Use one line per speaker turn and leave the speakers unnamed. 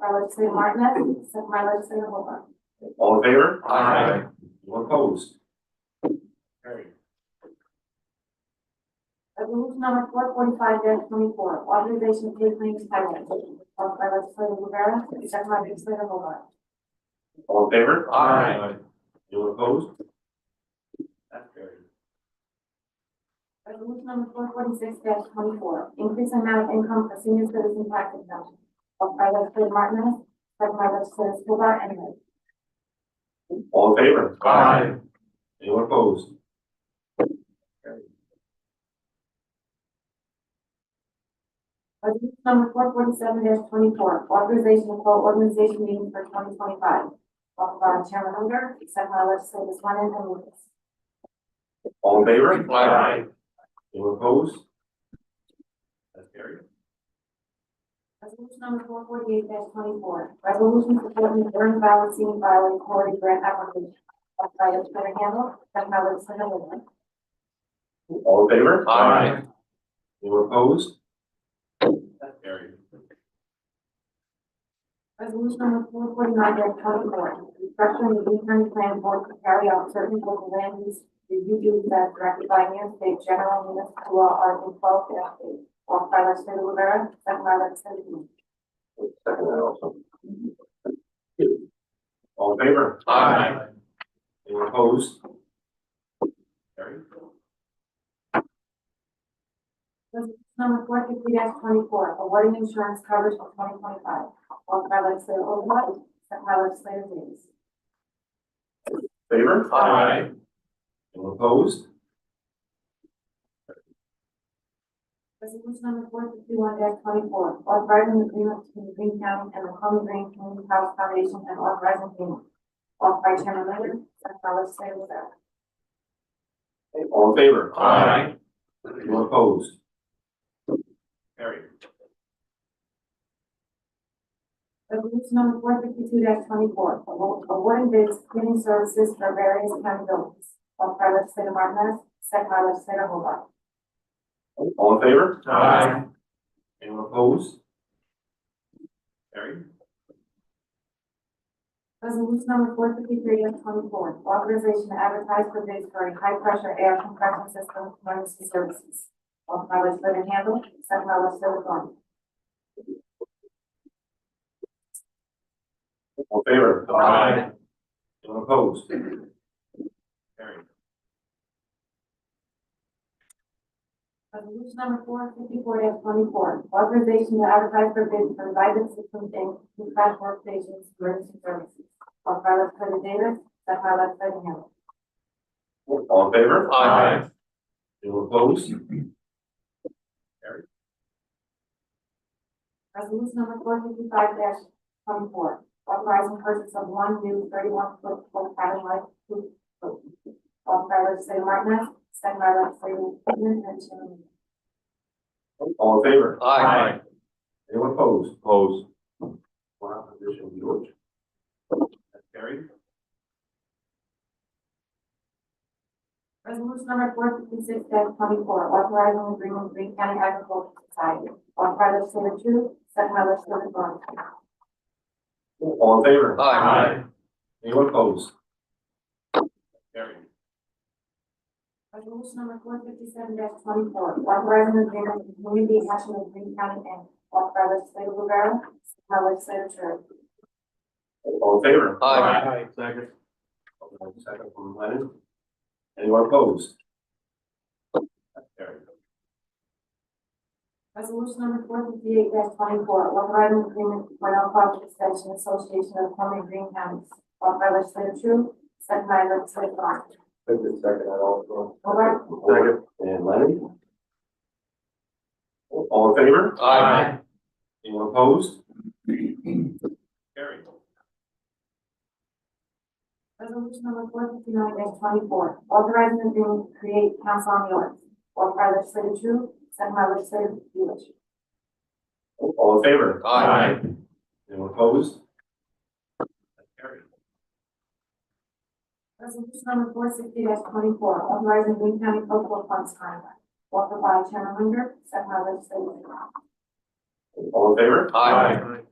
by legislator Martinez, second by legislator Hobart.
All in favor?
Aye.
Anyone opposed? Carried.
Resolution number four forty-five twenty-four, authorization of pay claims title, offered by legislator Rivera, second by legislator Hobart.
All in favor?
Aye.
Anyone opposed? That's carried.
Resolution number four forty-six twenty-four, increase in amount of income for senior citizen tax exemption, offered by legislator Martinez, second by legislator Hobart, and Lynn.
All in favor?
Aye.
Anyone opposed?
Resolution number four forty-seven twenty-four, authorization of call organization meeting for twenty twenty-five, offered by Chairman Unger, second by legislators Lennon and Lucas.
All in favor?
Aye.
Anyone opposed? That's carried.
Resolution number four forty-eight twenty-four, resolution supporting the urban violence scene violent quarry grant application, offered by legislator Handle, second by legislator Lewin.
All in favor?
Aye.
Anyone opposed? That's carried.
Resolution number four forty-nine twenty-four, restructuring the Lee County Plan Board to carry out certain local land use review duties as directed by New York State General Municipal Law Article twelve eight, offered by legislator Rivera, second by legislator Lewin.
Second that also. All in favor?
Aye.
Anyone opposed? Carried.
Resolution number four fifty twenty-four, awarding insurance coverage for twenty twenty-five, offered by legislator Overblock, second by legislator Davis.
Favor?
Aye.
Anyone opposed?
Resolution number four fifty-one twenty-four, authorizing the agreement between Green County and the Common Green Community House Foundation and authorizing payment. Offered by Chairman Linder, second by legislator Rivera.
All in favor?
Aye.
Anyone opposed? Carried.
Resolution number four fifty-two twenty-four, awarding bids, cleaning services for various county buildings. Offered by legislator Martinez, second by legislator Hobart.
All in favor?
Aye.
Anyone opposed? Carried.
Resolution number four fifty-three twenty-four, authorization to advertise for bids for a high-pressure air compression system for emergency services. Offered by legislator Handle, second by legislator Thorn.
All in favor?
Aye.
Anyone opposed? Carried.
Resolution number four fifty-four twenty-four, authorization to advertise for bids for vital systems and new crash workstations, emergency services. Offered by legislator Davis, second by legislator Handle.
All in favor?
Aye.
Anyone opposed?
Resolution number four fifty-five twenty-four, authorizing purchase of one new thirty-one foot full pattern light proof boat. Offered by legislator Martinez, second by legislator Newman and Chairman Linder.
All in favor?
Aye.
Anyone opposed? Opposed. One opposition, George. That's carried.
Resolution number four fifty-six twenty-four, authorizing agreement with Green County Agricultural Society, offered by legislator Chu, second by legislator Thorn.
All in favor?
Aye.
Anyone opposed? Carried.
Resolution number four fifty-seven twenty-four, authorizing agreement with Community Action of Green County Inc., offered by legislator Rivera, second by legislator Chu.
All in favor?
Aye.
Second. Second from Lennon. Anyone opposed? That's carried.
Resolution number four fifty-eight twenty-four, authorizing agreement with Cornell College Extension Association of Columbia Green Counties, offered by legislator Chu, second by legislator Thorn.
Take the second, I also.
Hobart.
Second. And Lennon? All in favor?
Aye.
Anyone opposed? Carried.
Resolution number four fifty-nine twenty-four, authorizing the agreement to create council on the arts, offered by legislator Tru, second by legislator Lewis.
All in favor?
Aye.
Anyone opposed? That's carried.
Resolution number four sixty twenty-four, authorizing Green County Focal Funds contract, offered by Chairman Linder, second by legislator Tru.
All in favor?
Aye.